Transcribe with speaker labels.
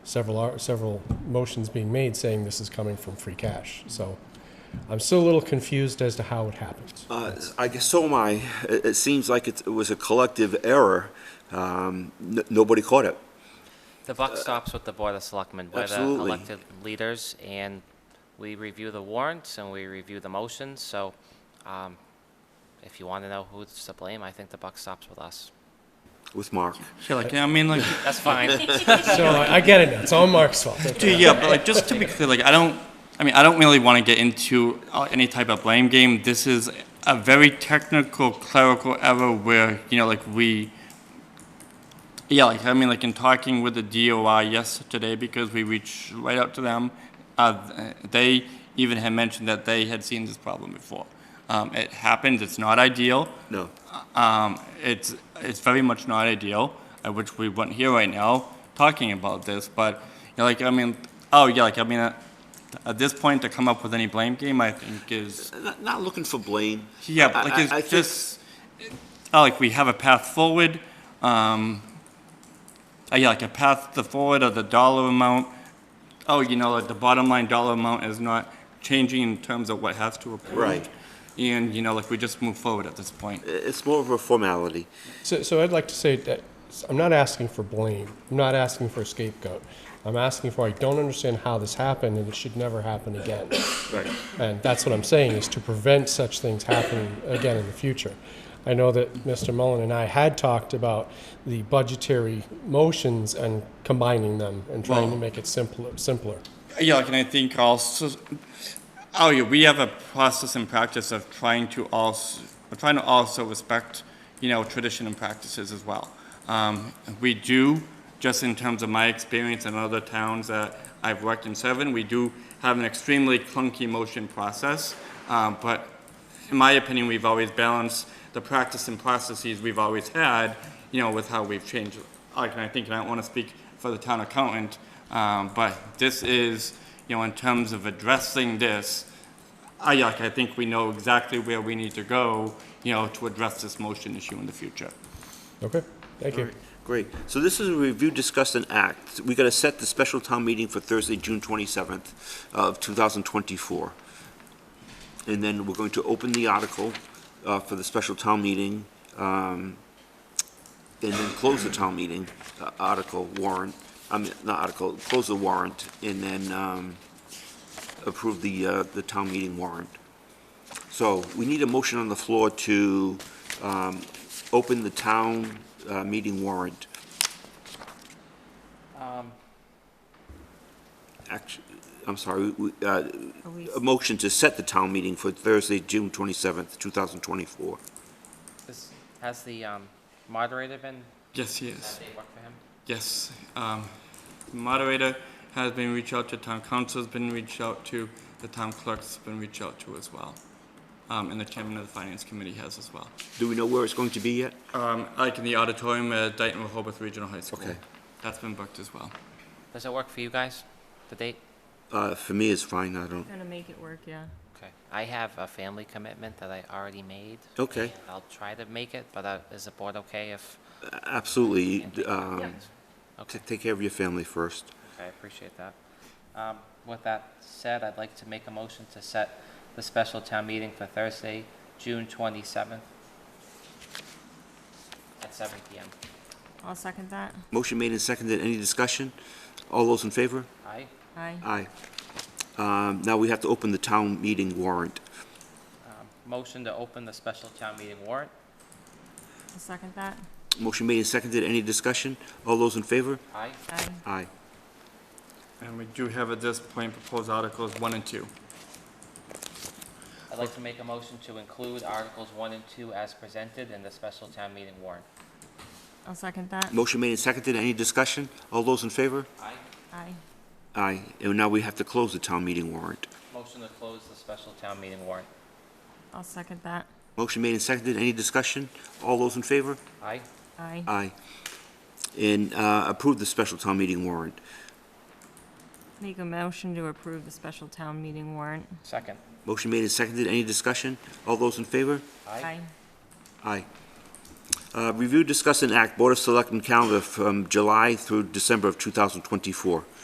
Speaker 1: several, ar- several motions being made saying this is coming from free cash. So I'm still a little confused as to how it happens.
Speaker 2: Uh, I guess so am I. It, it seems like it's- it was a collective error. Um, n- nobody caught it.
Speaker 3: The buck stops with the Board of Selectmen. We're the
Speaker 2: absolutely.
Speaker 3: elected leaders, and we review the warrants and we review the motions, so um, if you want to know who's to blame, I think the buck stops with us.
Speaker 2: With Mark.
Speaker 4: Yeah, like, I mean, like,
Speaker 3: That's fine.
Speaker 1: So I I get it. now. It's all Mark's fault.
Speaker 4: dude, yeah, but like, just to be clear, like, I don't, I mean, I don't really want to get into uh, any type of blame game. This is a very technical clerical error where, you know, like, we, yeah, like, I mean, like, in talking with the DOI yesterday, because we reached right out to them, uh, they even had mentioned that they had seen this problem before. Um, it happens, it's not ideal.
Speaker 2: No.
Speaker 4: Um, it's, it's very much not ideal, uh, which we weren't here right now talking about this, but, you know, like, I mean, oh, yeah, like, I mean, uh, at this point, to come up with any blame game, I think is,
Speaker 2: Not, not looking for blame.
Speaker 4: yeah,
Speaker 2: I-
Speaker 4: but,
Speaker 2: I-
Speaker 4: like,
Speaker 2: I
Speaker 4: it's
Speaker 2: think-
Speaker 4: just, oh, like, we have a path forward, um, uh, yeah, like, a path to forward of the dollar amount. Oh, you know, like, the bottom line dollar amount is not changing in terms of what has to approve.
Speaker 2: Right.
Speaker 4: And, you know, like, we just move forward at this point.
Speaker 2: It's more of a formality.
Speaker 1: So, so I'd like to say that I'm not asking for blame. I'm not asking for a scapegoat. I'm asking for I don't understand how this happened and it should never happen again.
Speaker 2: Right.
Speaker 1: And that's what I'm saying is to prevent such things happening again in the future. I know that Mr. Mullen and I had talked about the budgetary motions and combining them and trying to
Speaker 4: Well-
Speaker 1: make it simpler. Simpler.
Speaker 4: Yeah, like, and I think also, oh yeah, we have a process and practice of trying to also, trying to also respect, you know, tradition and practices as well. Um, we do, just in terms of my experience in other towns that I've worked in seven, we do have an extremely clunky motion process, um, but in my opinion, we've always balanced the practice and processes we've always had, you know, with how we've changed. Like, and I think, and I don't want to speak for the town accountant, um, but this is, you know, in terms of addressing this, I, like, I think we know exactly where we need to go, you know, to address this motion issue in the future.
Speaker 1: Okay. Thank you.
Speaker 2: Great. So this is a review, discuss, and act. We got to set the special town meeting for Thursday, June 27th of 2024. And then we're going to open the article uh, for the special town meeting, um, and then close the town meeting, uh, article warrant, I mean, not article, close the warrant, and then um, approve the, uh, the town meeting warrant. So we need a motion on the floor to um, open the town uh, meeting warrant.
Speaker 3: Um,
Speaker 2: Act- I'm sorry, we- uh,
Speaker 5: Are we-
Speaker 2: a motion to set the town meeting for Thursday, June 27th, 2024.
Speaker 3: this- Has the um, moderator been,
Speaker 4: Yes, yes.
Speaker 3: does that date work for him?
Speaker 4: Yes, um, moderator has been reached out to, town council's been reached out to, the town clerk's been reached out to as well. Um, and the chairman of the finance committee has as well.
Speaker 2: Do we know where it's going to be yet?
Speaker 4: Um, like in the auditorium at Dayton Rehoboth Regional High School.
Speaker 2: Okay.
Speaker 4: That's been booked as well.
Speaker 3: Does it work for you guys, the date?
Speaker 2: Uh, For me, it's fine, I don't,
Speaker 5: Gonna make it work, yeah.
Speaker 3: Okay. I have a family commitment that I already made.
Speaker 2: okay,
Speaker 3: I'll try to make it, but uh, is the board okay if,
Speaker 2: absolutely. um, t-
Speaker 3: okay?
Speaker 2: Take care of your family first.
Speaker 3: Okay, I appreciate that. Um, With that said, I'd like to make a motion to set the special town meeting for Thursday, June 27th at 7 PM.
Speaker 5: I'll second that.
Speaker 2: Motion made and seconded, any discussion? All those in favor?
Speaker 3: Aye?
Speaker 5: Aye.
Speaker 2: Aye. Um, Now we have to open the town meeting warrant.
Speaker 3: Um, Motion to open the special town meeting warrant.
Speaker 5: I'll second that.
Speaker 2: Motion made and seconded, any discussion? All those in favor?
Speaker 3: Aye?
Speaker 5: Aye.
Speaker 2: Aye.
Speaker 4: And we do have at this point proposed articles one and two.
Speaker 3: I'd like to make a motion to include Articles 1 and 2 as presented in the special town meeting warrant.
Speaker 5: I'll second that.
Speaker 2: Motion made and seconded, any discussion? All those in favor?
Speaker 3: Aye?
Speaker 5: Aye.
Speaker 2: Aye, and now we have to close the town meeting warrant.
Speaker 3: Motion to close the special town meeting warrant.
Speaker 5: I'll second that.
Speaker 2: Motion made and seconded, any discussion? All those in favor?
Speaker 3: Aye?
Speaker 5: Aye.
Speaker 2: Aye. And uh, approve the special town meeting warrant.
Speaker 5: Make a motion to approve the special town meeting warrant.
Speaker 3: Second?
Speaker 2: Motion made and seconded, any discussion? All those in favor?
Speaker 5: Aye.
Speaker 2: Aye. Uh, Review, discuss, and act Board of Selectmen calendar from July through December of 2024.